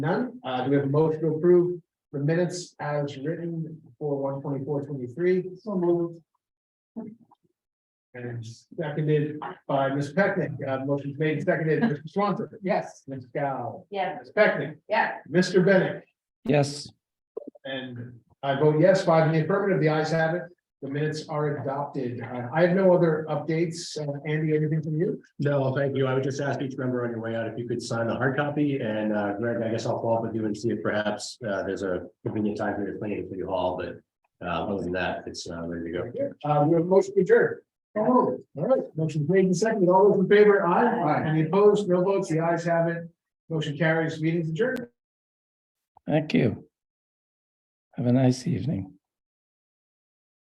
None, uh, do we have a motion to approve the minutes as written for one twenty-four, twenty-three? So moved. And seconded by Ms. Pecknick, uh, motion's made, and seconded, Mr. Swanton, yes, Ms. Gal, Yeah, Ms. Pecknick, yeah. Mr. Bennett, yes, and I vote yes, five in the affirmative, the ayes have it. The minutes are adopted. Uh, I have no other updates. Uh, Andy, anything from you? No, thank you. I would just ask each member on your way out if you could sign the hard copy and uh, Greg, I guess I'll follow up with you and see if perhaps uh, there's a convenient time for you to plan it for you all, but. Uh, other than that, it's uh, ready to go. Uh, we have a motion to adjourn. All right, motion made and seconded. All those in favor, aye. Aye. Any opposed? No votes. The ayes have it. Motion carries. Meeting's adjourned. thank you. Have a nice evening.